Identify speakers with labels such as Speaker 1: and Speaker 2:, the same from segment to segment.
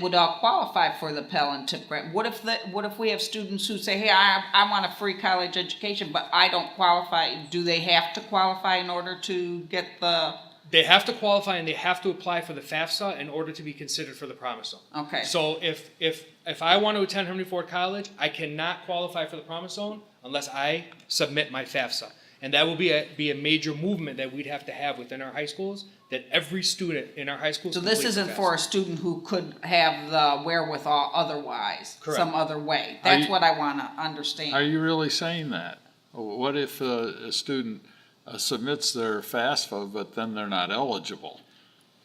Speaker 1: would all qualify for the Pell and Tip grant. What if the, what if we have students who say, hey, I, I want a free college education, but I don't qualify? Do they have to qualify in order to get the,
Speaker 2: They have to qualify and they have to apply for the FAFSA in order to be considered for the Promise Zone.
Speaker 1: okay,
Speaker 2: So if, if, if I want to attend Henry Ford College, I cannot qualify for the Promise Zone unless I submit my FAFSA. And that will be a, be a major movement that we'd have to have within our high schools, that every student in our high schools.
Speaker 1: so this
Speaker 2: completes the
Speaker 1: isn't for a
Speaker 2: FAFSA.
Speaker 1: student who could have the wherewithal otherwise,
Speaker 2: Correct.
Speaker 1: some other way? That's
Speaker 3: you-
Speaker 1: what I wanna
Speaker 3: Are
Speaker 1: understand.
Speaker 3: you really saying that? What if uh, a student uh, submits their FAFSA, but then they're not eligible?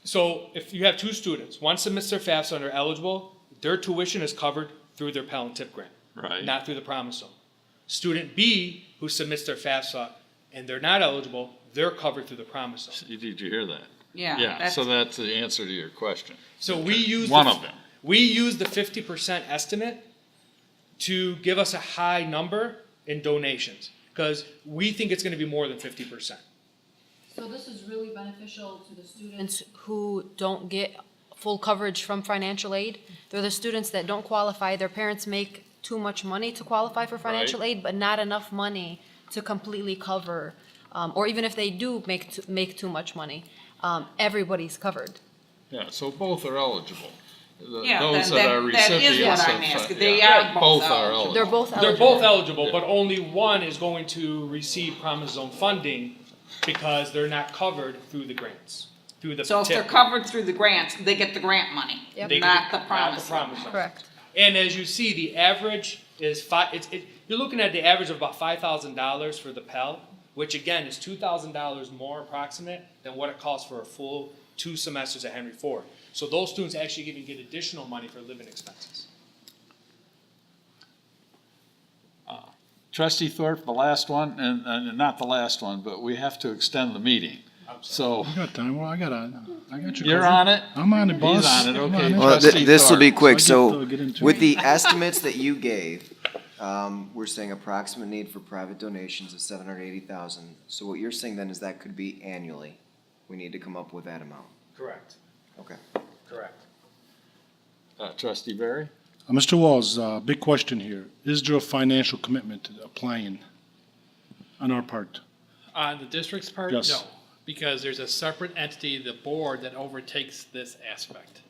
Speaker 2: So if you have two students, one submits their FAFSA and are eligible, their tuition is covered through their Pell and Tip grant.
Speaker 3: Right.
Speaker 2: Not through the Promise Zone. Student B, who submits their FAFSA and they're not eligible, they're covered through the Promise Zone.
Speaker 3: Did you hear that?
Speaker 1: Yeah.
Speaker 3: Yeah,
Speaker 1: that's-
Speaker 3: so that's the answer to your question.
Speaker 2: So we use.
Speaker 3: One
Speaker 2: the-
Speaker 3: of them.
Speaker 2: We use the fifty percent estimate to give us a high number in donations, because we think it's gonna be more than fifty percent.
Speaker 4: So this is really beneficial to the students who don't get full coverage from financial aid. They're the students that don't qualify, their parents make too much money to qualify for financial aid, but not enough money to completely cover, um, or even if they do make, t- make too much money, um, everybody's covered.
Speaker 3: Yeah, so both are eligible. The-
Speaker 1: Yeah,
Speaker 3: Those
Speaker 1: then
Speaker 3: that are
Speaker 1: that- that is what
Speaker 3: recipients
Speaker 1: I'm
Speaker 3: of-
Speaker 1: asking. They
Speaker 3: yeah,
Speaker 1: are both eligible.
Speaker 4: They're both
Speaker 2: They're
Speaker 4: eligible.
Speaker 2: both eligible, but only one is going to receive Promise Zone funding because they're not covered through the grants, through the.
Speaker 1: So if they're
Speaker 2: TIP.
Speaker 1: covered through the grants, they get the grant money,
Speaker 4: Yep.
Speaker 2: They-
Speaker 1: not the promise. Zone.
Speaker 2: Promise Zone.
Speaker 4: Correct.
Speaker 2: And as you see, the average is five. It's, it, you're looking at the average of about five thousand dollars for the Pell, which again is two thousand dollars more approximate than what it costs for a full two semesters at Henry Ford. So those students actually even get additional money for living expenses.
Speaker 3: Trustee Thorpe, the last one, and, and not the last one, but we have to extend the meeting. So
Speaker 5: I got time. Well, I got on. I got you.
Speaker 3: you're
Speaker 5: covered.
Speaker 3: on it?
Speaker 5: I'm on it,
Speaker 3: He's
Speaker 5: boss.
Speaker 3: on it,
Speaker 5: I'm
Speaker 3: okay.
Speaker 6: Well,
Speaker 3: Trustee
Speaker 6: th- this will be
Speaker 3: Thorpe.
Speaker 6: quick,
Speaker 5: So I get
Speaker 6: so
Speaker 5: to get into
Speaker 6: with
Speaker 5: it.
Speaker 6: the estimates that you gave, um, we're saying approximate need for private donations of seven hundred eighty thousand. So what you're saying then is that could be annually. We need to come up with that amount.
Speaker 2: Correct.
Speaker 6: Okay.
Speaker 2: Correct.
Speaker 3: Uh, Trustee Barry?
Speaker 5: Uh, Mr. Walls, uh, big question here. Is there a financial commitment to applying on our part?
Speaker 7: On Uh, the district's part,
Speaker 5: Yes.
Speaker 7: no, because there's a separate entity, the board, that overtakes this aspect.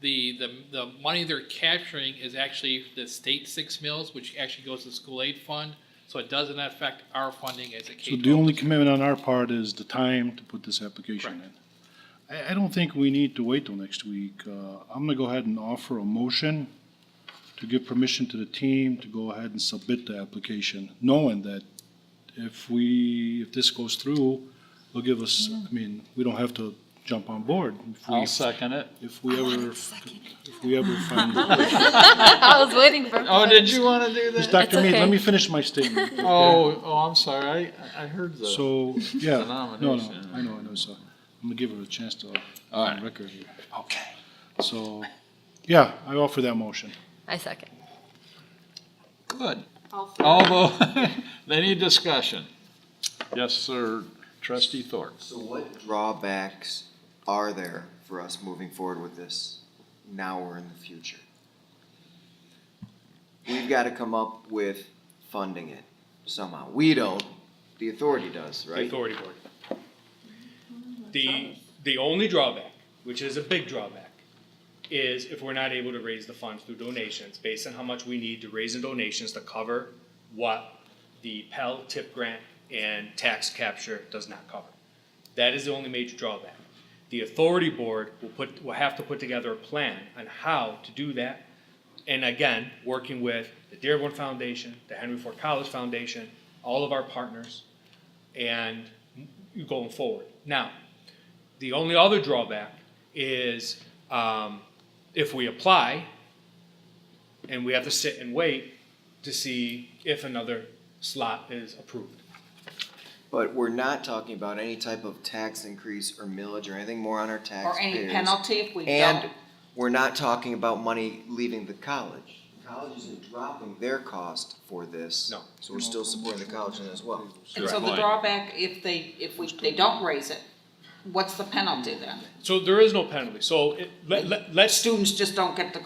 Speaker 7: The, the, the money they're capturing is actually the state six mills, which actually goes to the school aid fund, so it doesn't affect our funding as a K
Speaker 5: So
Speaker 7: twelve.
Speaker 5: the only commitment on our part is the time to put this application in. I, I don't think we need to wait till next week. Uh, I'm gonna go ahead and offer a motion to give permission to the team to go ahead and submit the application, knowing that if we, if this goes through, it'll give us, I mean, we don't have to jump on board. If we-
Speaker 3: I'll second it.
Speaker 5: If we ever, if we ever find.
Speaker 4: I was waiting for.
Speaker 3: Oh, did you want to do
Speaker 5: Just
Speaker 3: that?
Speaker 5: Dr. Mead, let
Speaker 4: okay.
Speaker 5: me finish my statement.
Speaker 3: Oh, oh, I'm sorry, I, I heard the.
Speaker 5: So, yeah, no, no,
Speaker 3: nomination.
Speaker 5: I know, I know, so I'm gonna give her a chance to,
Speaker 3: All
Speaker 5: on
Speaker 3: right.
Speaker 5: record here. Okay. So, yeah, I offer that motion.
Speaker 4: I second.
Speaker 3: Good. Although, any discussion? Yes, sir, trustee Thorpe.
Speaker 6: So what drawbacks are there for us moving forward with this now or in the future? We've got to come up with funding it somehow. We don't. The authority does,
Speaker 2: The
Speaker 6: right?
Speaker 2: authority board. The, the only drawback, which is a big drawback, is if we're not able to raise the funds through donations, based on how much we need to raise in donations to cover what the Pell tip grant and tax capture does not cover. That is the only major drawback. The authority board will put, will have to put together a plan on how to do that. And again, working with the Dearborn Foundation, the Henry Ford College Foundation, all of our partners, and going forward. Now, the only other drawback is um, if we apply and we have to sit and wait to see if another slot is approved.
Speaker 6: But we're not talking about any type of tax increase or millage or anything more on our taxpayers.
Speaker 1: Or any penalty if we don't.
Speaker 6: And we're not talking about money leaving the college. The College isn't dropping their cost for this.
Speaker 2: No.
Speaker 6: So we're still supporting the college in it as well.
Speaker 1: And so the
Speaker 3: Right.
Speaker 1: drawback, if they, if we, they don't raise it, what's the penalty then?
Speaker 2: So there is no penalty. So it, let, let, let's
Speaker 1: Students just don't get the